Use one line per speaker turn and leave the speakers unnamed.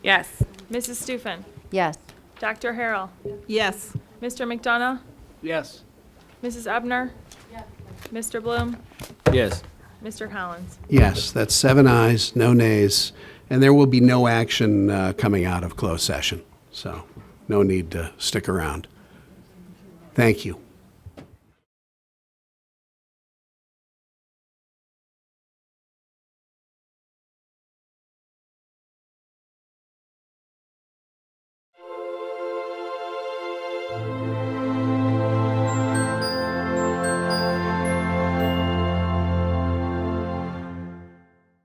Yes.
Mrs. Stufen,
Yes.
Dr. Harrell,
Yes.
Mr. McDonough,
Yes.
Mrs. Ebner, Mr. Bloom,
Yes.
Mr. Collins.
Yes, that's seven ayes, no nays, and there will be no action uh, coming out of closed session, so no need to stick around. Thank you.